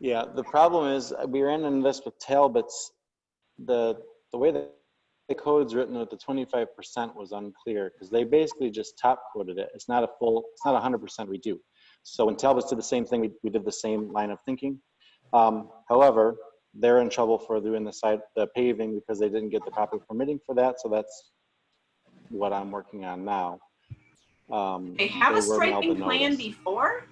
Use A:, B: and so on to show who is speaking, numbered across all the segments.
A: Yeah, the problem is, uh, we ran into this with Talbot's, the, the way that the code's written with the twenty-five percent was unclear, because they basically just top coded it. It's not a full, it's not a hundred percent redo. So when Talbot's did the same thing, we, we did the same line of thinking. Um, however, they're in trouble for doing the side, the paving, because they didn't get the proper permitting for that, so that's what I'm working on now. Um,
B: They have a
A: were mailed the
B: striping plan
A: notice
B: before?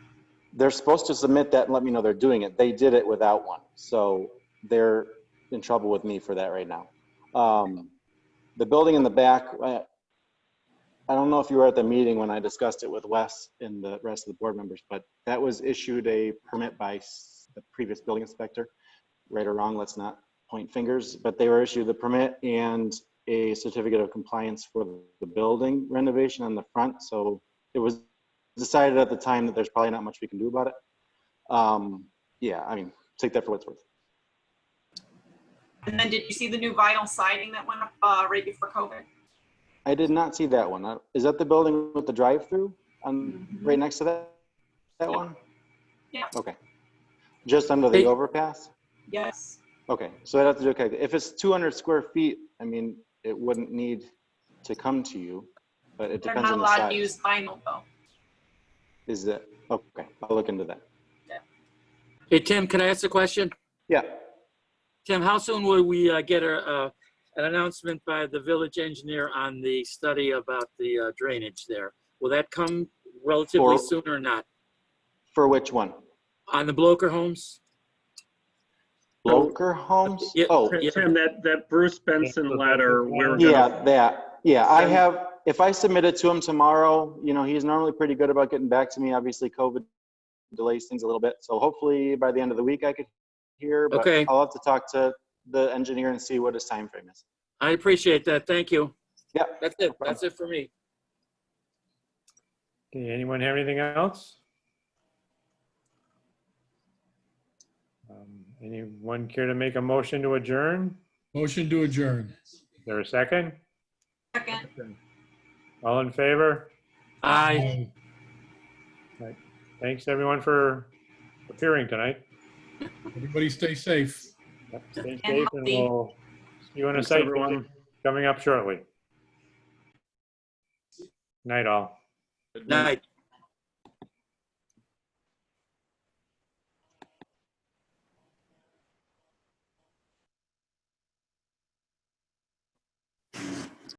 A: they're supposed to submit that and let me know they're doing it. They did it without one, so they're in trouble with me for that right now. Um, the building in the back, I, I don't know if you were at the meeting when I discussed it with Wes and the rest of the board members, but that was issued a permit by s- the previous building inspector. Right or wrong, let's not point fingers, but they were issued the permit and a certificate of compliance for the building renovation on the front, so it was decided at the time that there's probably not much we can do about it. Um, yeah, I mean, take that for what it's worth.
B: And then did you see the new vinyl siding that went up uh, right before COVID?
A: I did not see that one. Uh, Is that the building with the drive-through on
B: Mhm.
A: right next to that that one?
B: Yeah.
A: Okay. Just under the
C: Hey.
A: overpass.
B: Yes.
A: Okay, so I'd have to do a calc- If it's 200 square feet, I mean, it wouldn't need to come to you, but it
B: They're
A: depends
B: not
A: on the
B: allowed to
A: size.
B: use vinyl though.
A: Is that okay? I'll look into that.
C: Hey, Tim, can I ask a question?
A: Yeah.
C: Tim, how soon will we uh, get a, uh, an announcement by the village engineer on the study about the uh, drainage there? Will that come relatively
A: Or-
C: soon or not?
A: For which one?
C: On the Bloker homes?
A: Bloker Homes?
C: Yeah,
A: Oh,
C: Yeah.
D: Tim, that, that Bruce Benson letter, we were
A: Yeah,
D: gonna,
A: that, yeah, I
D: Send-
A: have, if I submit it to him tomorrow, you know, he's normally pretty good about getting back to me. Obviously, COVID delays things a little bit, so hopefully by the end of the week I could hear, but
C: Okay.
A: I'll have to talk to the engineer and see what his time frame is.
C: I appreciate that. Thank you.
A: Yeah.
C: That's it. That's it for me.
E: Okay, anyone have anything else? Um, Anyone care to make a motion to adjourn?
F: Motion to adjourn.
E: Is there a second?
B: Second,
E: All in favor?
C: Aye.
E: Thanks, everyone, for appearing tonight.
F: Everybody stay safe.
E: Yep, Stay safe, and
B: healthy.
E: we'll see you on a
D: Thanks,
E: site
D: everyone.
E: visit coming up shortly. Night all.
C: Night.